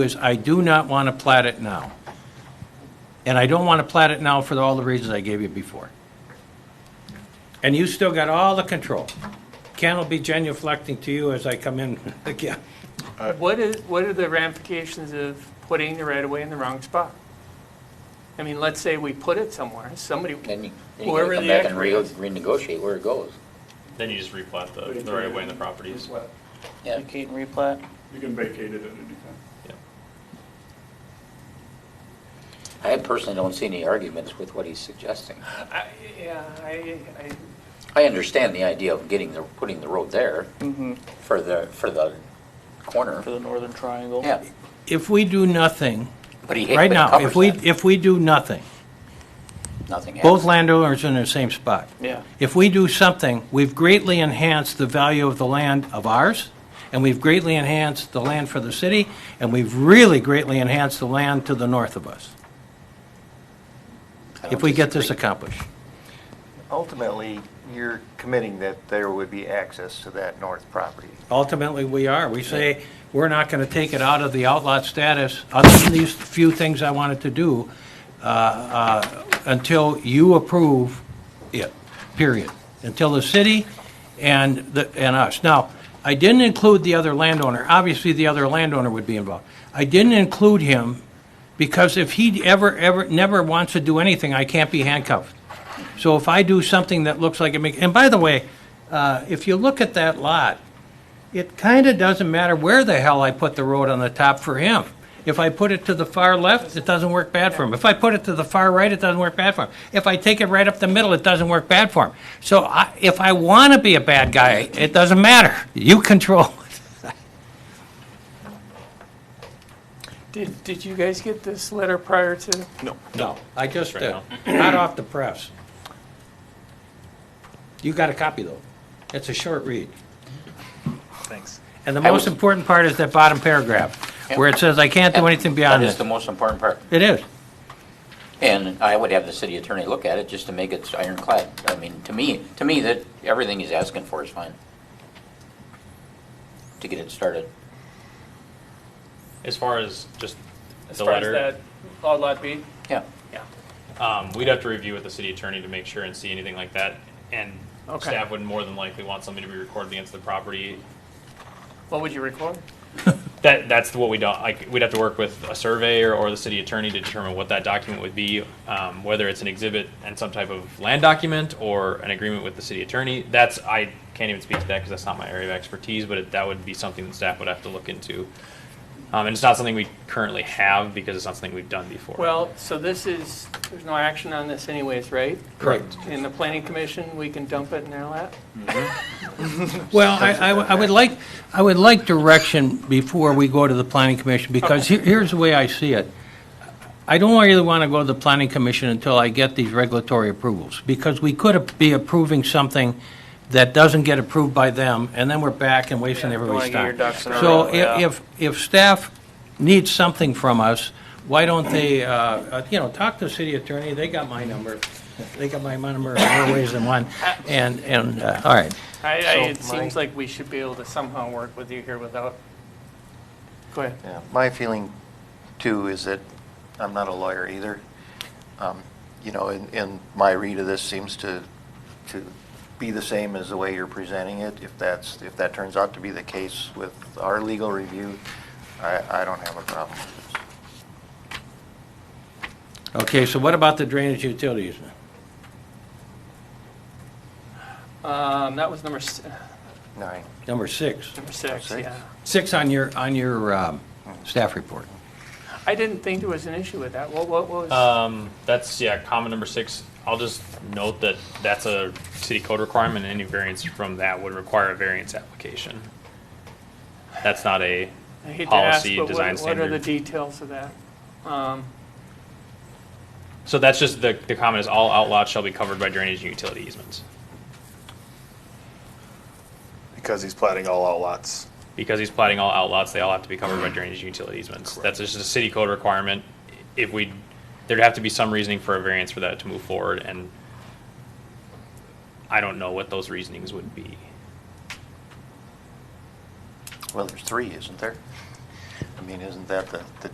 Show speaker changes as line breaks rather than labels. is I do not want to plat it now. And I don't want to plat it now for all the reasons I gave you before. And you still got all the control. Ken will be genuflecting to you as I come in again.
What is, what are the ramifications of putting the right-of-way in the wrong spot? I mean, let's say we put it somewhere, somebody,
Then you, then you
Whoever
gotta come
the
back and re-
expert is.
renegotiate where it goes.
Then you just replat the, the right of way in the properties.
Yeah,
Vacate and replat.
You can vacate it at any time.
I personally don't see any arguments with what he's suggesting.
I, yeah, I, I,
I understand the idea of getting the, putting the road there
Mm-hmm.
for the, for the corner,
For the northern triangle.
yeah.
If we do nothing,
But he, but
right
it
now, if
covers
we,
that.
if we do nothing,
Nothing happens.
both landowners are in the same spot.
Yeah.
If we do something, we've greatly enhanced the value of the land of ours, and we've greatly enhanced the land for the city, and we've really greatly enhanced the land to the north of us,
I don't
if we get this
disagree.
accomplished.
Ultimately, you're committing that there would be access to that north property.
Ultimately, we are. We say, we're not going to take it out of the outlot status, other than these few things I wanted to do, uh, uh, until you approve it, period. Until the city and, the- and us. Now, I didn't include the other landowner. Obviously, the other landowner would be involved. I didn't include him because if he ever, ever, never wants to do anything, I can't be handcuffed. So if I do something that looks like it makes, and by the way, uh, if you look at that lot, it kind of doesn't matter where the hell I put the road on the top for him. If I put it to the far left, it doesn't work bad for him. If I put it to the far right, it doesn't work bad for him. If I take it right up the middle, it doesn't work bad for him. So I, if I want to be a bad guy, it doesn't matter. You control it.
did, did you guys get this letter prior to?
No, I just,
Right
uh, hot off the press. You got a copy, though. It's a short read.
Thanks.
And the
I
most
was-
important part is that bottom paragraph, where it says, I can't do anything beyond
That is
this.
the most important part.
It is.
And I would have the city attorney look at it just to make it ironclad. I mean, to me, to me, that, everything he's asking for is fine. To get it started.
As far as just
As
the
far as
letter,
that Law Lot B?
Yeah,
Yeah.
um, we'd have to review with the city attorney to make sure and see anything like that. And
Okay.
staff would more than likely want something to be recorded against the property.
What would you record?
That, that's what we don't, like, we'd have to work with a surveyor or the city attorney to determine what that document would be, um, whether it's an exhibit and some type of land document or an agreement with the city attorney. That's, I can't even speak to that because that's not my area of expertise, but it- that would be something that staff would have to look into. Um, and it's not something we currently have because it's not something we've done before.
Well, so this is, there's no action on this anyways, right?
Correct.
In the planning commission, we can dump it in their lap?
Well, I, I I would like, I would like direction before we go to the planning commission, because here- here's the way I see it. I don't really want to go to the planning commission until I get these regulatory approvals, because we could be approving something that doesn't get approved by them, and then we're back and wasting
Don't wanna
everybody's
get your
time.
ducks in a
So
row.
i-
yeah.
if, if staff needs something from us, why don't they, uh, uh, you know, talk to the city attorney, they got my number, they got my number in more ways than one, and, and, uh, all right.
I, I,
So
it seems
my-
like we should be able to somehow work with you here without, go ahead.
Yeah, My feeling too is that, I'm not a lawyer either, Um, you know, and, and my read of this seems to, to be the same as the way you're presenting it. If that's, if that turns out to be the case with our legal review, I, I don't have a problem.
Okay, so what about the drainage utilities?
Um, that was number, s-
Nine.
Number six.
number six,
Six.
yeah.
Six on your, on your um, staff report.
I didn't think there was an issue with that. What, what was?
Um, that's, yeah, comment number six. I'll just note that that's a city code requirement, and any variance from that would require a variance application. That's not a,
I hate to ask,
policy,
but
design
what, what are the
standard.
details of that? Um,
so that's just, the, the comment is all outlots shall be covered by drainage and utility easements.
because he's plating all Mm-hmm. out lots.
Because he's plating all outlots, they all have to be covered by drainage and utility easements. That's just a city code requirement. If we, there'd have to be some reasoning for a variance for that to move forward, and I don't know what those reasonings would be.
Well, there's three, isn't there? I mean, isn't that the, the